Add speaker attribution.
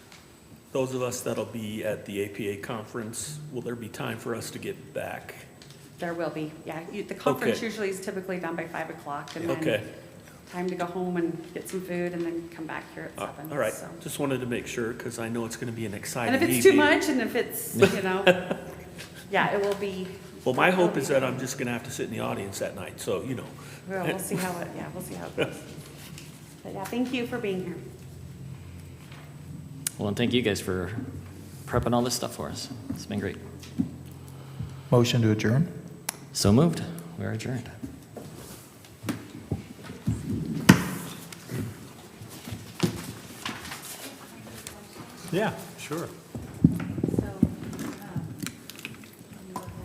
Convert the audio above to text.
Speaker 1: Those of us that'll be at the APA conference, will there be time for us to get back?
Speaker 2: There will be, yeah. You- The conference
Speaker 1: Okay.
Speaker 2: usually is typically done by 5 o'clock, and
Speaker 1: Okay,
Speaker 2: then time to go home and get some food, and then come back here at
Speaker 1: all
Speaker 2: 7.
Speaker 1: Uh, all right,
Speaker 2: so.
Speaker 1: just wanted to make sure, because I know it's going to be an
Speaker 2: And
Speaker 1: exciting
Speaker 2: if
Speaker 1: evening.
Speaker 2: it's too much, and if it's, you know, yeah, it will be,
Speaker 1: Well, my hope is that I'm just going to have to sit in the audience that night, so, you know.
Speaker 2: we'll we'll see how it, yeah, we'll see how it goes. But yeah, thank you for being here.
Speaker 3: Well, and thank you guys for prepping all this stuff for us. It's been great.
Speaker 4: Motion to adjourn?
Speaker 3: So moved. We are adjourned.
Speaker 1: Yeah, sure.